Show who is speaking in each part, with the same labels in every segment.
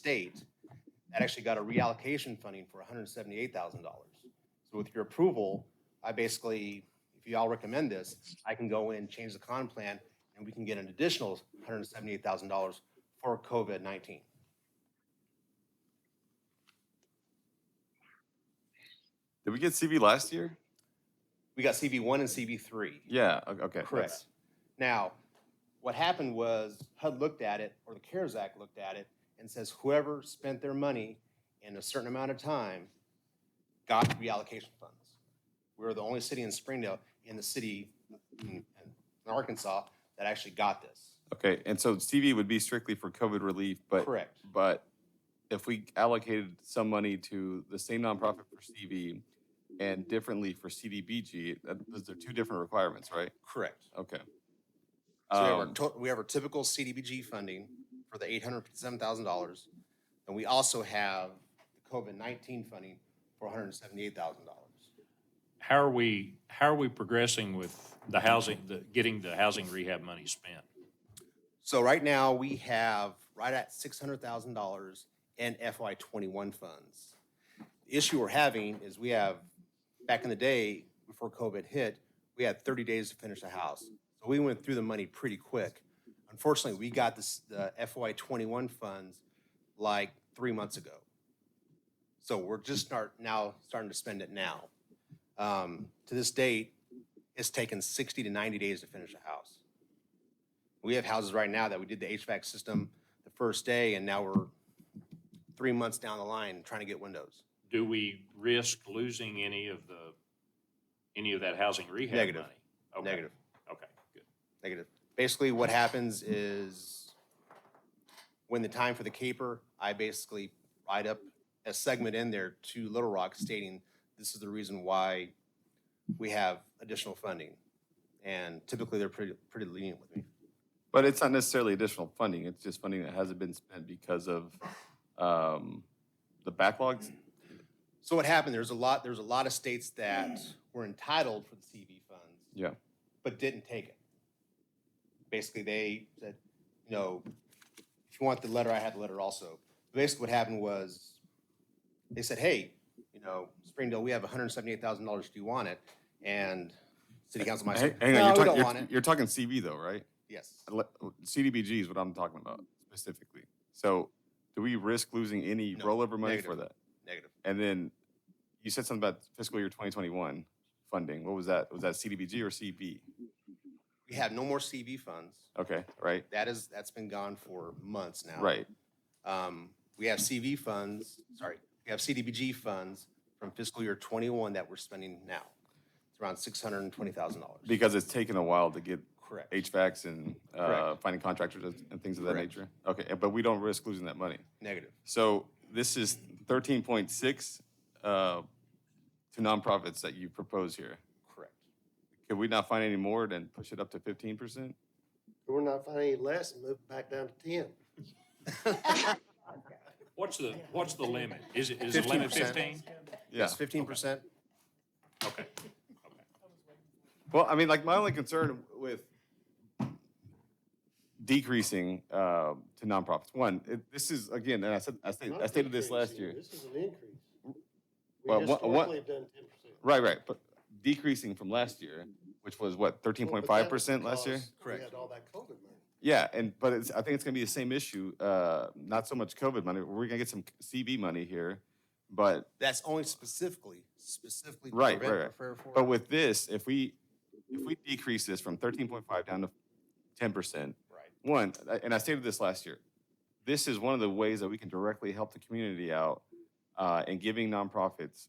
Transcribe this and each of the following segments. Speaker 1: state that actually got a reallocation funding for $178,000. So with your approval, I basically, if you all recommend this, I can go in, change the con plan, and we can get an additional $178,000 for COVID-19.
Speaker 2: Did we get CV last year?
Speaker 1: We got CB1 and CB3.
Speaker 2: Yeah, o- okay.
Speaker 1: Correct.
Speaker 2: that's-
Speaker 1: Now, what happened was HUD looked at it, or the CARES Act looked at it, and says whoever spent their money in a certain amount of time got reallocation funds. We were the only city in Springdale, in the city, in in Arkansas, that actually got this.
Speaker 2: Okay, and so CV would be strictly for COVID relief, but,
Speaker 1: Correct.
Speaker 2: but if we allocated some money to the same nonprofit for CV and differently for CDBG, that, those are two different requirements, right?
Speaker 1: Correct.
Speaker 2: Okay.
Speaker 1: So we have, our
Speaker 2: Um,
Speaker 1: to- we have our typical CDBG funding for the eight hundred fifty-seven thousand dollars, and we also have the COVID nineteen funding for one hundred seventy-eight thousand dollars.
Speaker 3: How are we, how are we progressing with the housing, the, getting the housing rehab money spent?
Speaker 1: So right now, we have right at six hundred thousand dollars in FY twenty-one funds. The Issue we're having is we have, back in the day, before COVID hit, we had thirty days to finish a house. So we went through the money pretty quick. Unfortunately, we got this, the FY twenty-one funds like three months ago. So we're just start, now, starting to spend it now. Um, to this date, it's taken sixty to ninety days to finish a house. We have houses right now that we did the HVAC system the first day, and now we're three months down the line trying to get windows.
Speaker 3: Do we risk losing any of the, any of that housing rehab money?
Speaker 1: Negative.
Speaker 3: Okay,
Speaker 1: Negative,
Speaker 3: Okay, good.
Speaker 1: negative. Basically, what happens is when the time for the caper, I basically write up a segment in there to Little Rock stating this is the reason why we have additional funding. And typically, they're pretty, pretty lenient with me.
Speaker 2: But it's not necessarily additional funding, it's just funding that hasn't been spent because of, um, the backlogs?
Speaker 1: So what happened, there's a lot, there's a lot of states that were entitled for the CV funds.
Speaker 2: Yeah.
Speaker 1: But didn't take it. Basically, they said, you know, if you want the letter, I had the letter also. Basically, what happened was, they said, hey, you know, Springdale, we have hundred and seventy-eight thousand dollars, do you want it? And city council might say,
Speaker 2: Hang hang
Speaker 1: no,
Speaker 2: on, you're
Speaker 1: we
Speaker 2: talking,
Speaker 1: don't want
Speaker 2: you're,
Speaker 1: it.
Speaker 2: you're talking CV though, right?
Speaker 1: Yes,
Speaker 2: le- CDBG is what I'm talking about specifically. So do we risk losing any
Speaker 1: Mm-hmm. No,
Speaker 2: rollover money for that?
Speaker 1: negative.
Speaker 2: And then you said something about fiscal year 2021 funding. What was that? Was that CDBG or CB?
Speaker 1: We have no more CV funds.
Speaker 2: Okay, right,
Speaker 1: That is, that's been gone for months now.
Speaker 2: right.
Speaker 1: Um, we have CV funds, sorry, we have CDBG funds from fiscal year twenty-one that we're spending now. It's around six hundred and twenty thousand dollars.
Speaker 2: Because it's taken a while to get
Speaker 1: Correct.
Speaker 2: HVACs and uh,
Speaker 1: Correct.
Speaker 2: finding contractors and- and things of that
Speaker 1: Correct.
Speaker 2: nature. Okay, and- but we don't risk losing that money.
Speaker 1: Negative.
Speaker 2: So this is 13.6 uh, to nonprofits that you propose here.
Speaker 1: Correct.
Speaker 2: Could we not find any more and push it up to 15%?
Speaker 4: We're not finding any less and move it back down to ten.
Speaker 3: What's the, what's the limit? Is it, is the limit
Speaker 1: 15%.
Speaker 3: fifteen?
Speaker 2: Yeah.
Speaker 1: Fifteen percent?
Speaker 3: Okay.
Speaker 2: Well, I mean, like my only concern with decreasing uh, to nonprofits, one, it, this is again, and I said, I stated, I stated this last year,
Speaker 4: This is an increase.
Speaker 2: Well,
Speaker 4: We
Speaker 2: what- what-
Speaker 4: historically have done ten percent.
Speaker 2: right, right, but decreasing from last year, which was what thirteen point five percent last year.
Speaker 1: Correct.
Speaker 4: We had all that COVID money.
Speaker 2: Yeah, and but it's, I think it's going to be the same issue. Uh, not so much COVID money. We're going to get some CB money here, but
Speaker 1: That's only specifically, specifically. to
Speaker 2: Right,
Speaker 1: prevent
Speaker 2: right, right.
Speaker 1: or for-
Speaker 2: But with this, if we, if we decrease this from thirteen point five down to ten percent.
Speaker 1: Right.
Speaker 2: One, I- and I stated this last year, this is one of the ways that we can directly help the community out, uh, in giving nonprofits,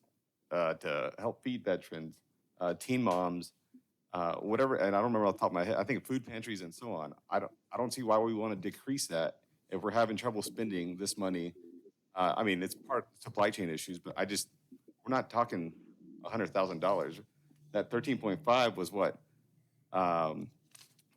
Speaker 2: uh, to help feed veterans, uh, teen moms, uh, whatever, and I don't remember off the top of my head, I think food pantries and so on. I don't, I don't see why we want to decrease that if we're having trouble spending this money. Uh, I mean, it's part supply chain issues, but I just, we're not talking hundred thousand dollars. That thirteen point five was what? Um,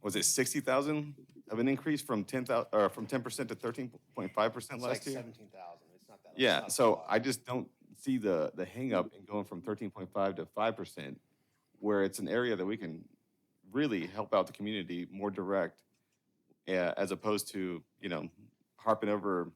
Speaker 2: was it sixty thousand of an increase from ten thousand or from ten percent to thirteen point five percent
Speaker 1: It's like
Speaker 2: last year?
Speaker 1: seventeen thousand. It's not that. it's
Speaker 2: Yeah,
Speaker 1: not a
Speaker 2: so
Speaker 1: lot.
Speaker 2: I just don't see the the hangup in going from thirteen point five to five percent, where it's an area that we can really help out the eh, community more direct, uh, as opposed to you know harping over